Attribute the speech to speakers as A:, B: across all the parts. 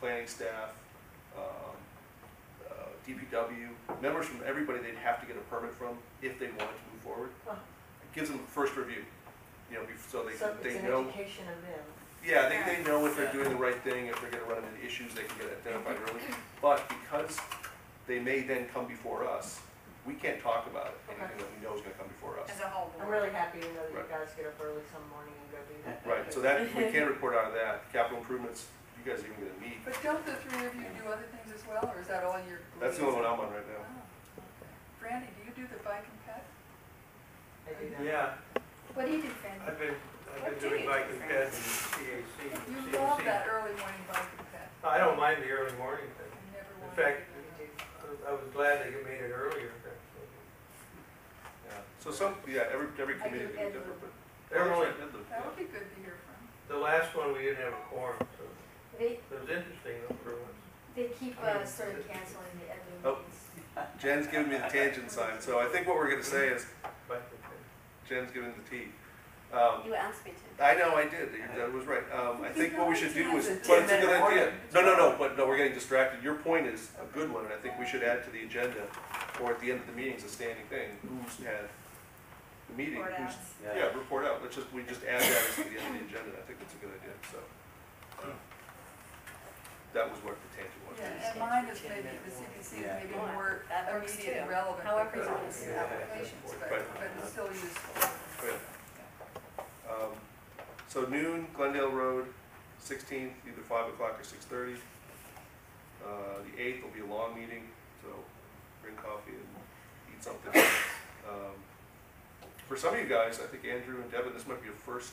A: planning staff, um, uh, DPW, members from everybody they'd have to get a permit from if they wanted to move forward.
B: Wow.
A: It gives them a first review, you know, bef- so they,
B: So it's
A: they
B: an
A: know,
B: education of them.
A: yeah, they, they
C: Yeah.
A: know if they're
C: Yeah.
A: doing the right thing, if they're gonna run into issues, they can get identified early. But because they may then come before us, we can't talk about it,
B: Okay.
A: anything that we know is gonna come before us.
C: as a whole
B: I'm
C: board.
B: really happy to know that you
A: Right.
B: guys get up early some morning and go do that.
A: Right, so that, we can report out of that, capital improvements, you guys even gonna meet,
D: But don't the three of you do other things as well, or is that all your?
A: that's the only one I'm on right
D: Oh,
A: now.
D: okay. Brandy, do you do the bike and pet?
B: I do that.
E: Yeah,
C: What do you do, Fran?
E: I've been, I've
C: What day
E: been
C: is
E: doing bike
C: it, Frank?
E: and ped and
D: You
E: CAC. CAC.
D: love that early morning bike and pet.
E: I don't mind the early
D: I
E: morning thing.
D: never wanted
E: In
D: to
E: fact,
D: do that.
E: I was- I was glad they made it earlier.
A: Yeah, so some, yeah, every, every
C: I do
A: committee can be
C: Ed
A: different, but.
E: They're only,
D: That would be good to hear from.
E: the last one, we didn't have a quorum, so
F: They,
E: it was interesting though for once.
F: they keep uh, sort of canceling the Edwin
A: Oh.
F: meetings.
A: Jen's giving me the tangent sign, so I think what we're gonna say is,
E: Bike and ped.
A: Jen's giving the T. Um,
F: You asked me to.
A: I know, I did, You- that was right, um, I think what we should do is,
B: It's a
A: but it's a good
B: 10-minute
A: idea.
B: warning.
A: No, no, no, but, no, we're getting distracted, your point is a good one, and I think we should add to the agenda, or at the end of the meeting, is a standing thing, who's had the meeting,
C: Board
A: who's,
C: outs.
A: yeah, report out, let's just, we just add that as to the end of the agenda, I think that's a good idea, so. uh, That was what the tangent was.
D: Yeah,
F: you
D: and
F: stand
D: mine
F: for
D: is
F: ten
D: maybe,
F: minute
D: the CPC is
G: Yeah.
D: maybe
F: Well,
D: more
F: that works
D: immediate and
F: too.
D: relevant.
F: However
D: because
F: you
D: it's
F: want.
D: Applications, but,
A: Right.
D: but it's still useful.
A: Right. Um, So noon, Glendale Road, sixteenth, either five o'clock or six thirty. Uh, the eighth will be a long meeting, so bring coffee and eat something. Um, For some of you guys, I think Andrew and Devin, this might be your first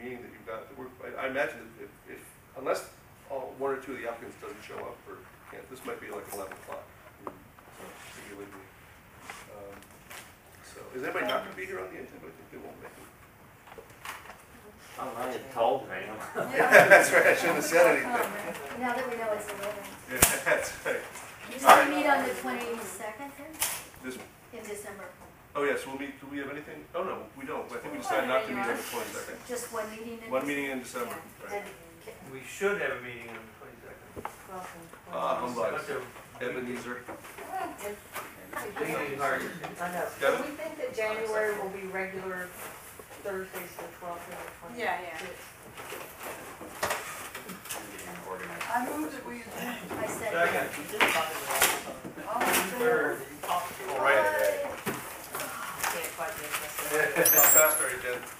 A: meeting that you've got, that we're- I, I imagine that if, if, unless all, one or two of the applicants doesn't show up or can't, this might be like eleven o'clock. So, if you leave me. Um, So, is anybody not gonna be here on the eighth? I think they won't make it.
G: I'm not told, man.
D: Yeah.
A: That's right, I shouldn't have said anything.
D: Comment.
F: Now that we know it's eleven.
A: Yeah, that's right.
F: You
A: All
F: said
A: right.
F: meet on the twenty-second then,
A: This,
F: in December?
A: oh yes, we'll meet, do we have anything? Oh no, we don't, I think we
F: Well,
A: decided not
F: there
A: to
F: you
A: meet on
F: are.
A: the twenty-second.
F: Just one meeting in?
A: One meeting in December, right.
F: Then,
E: We should have a meeting on the twenty-second.
A: Ah,
E: But
A: humbug,
E: the
A: Ebenezer.
E: meeting is hard to
B: I
E: say.
B: know.
A: Got it?
B: Do we think that January will be regular Thursdays, the twelfth and the twenty-sixth?
C: Yeah, yeah.
D: I move that we adjourn.
F: I said.
E: Second,
D: All in favor?
E: third,
A: All right.
F: Bye.
A: How fast are you, Jen?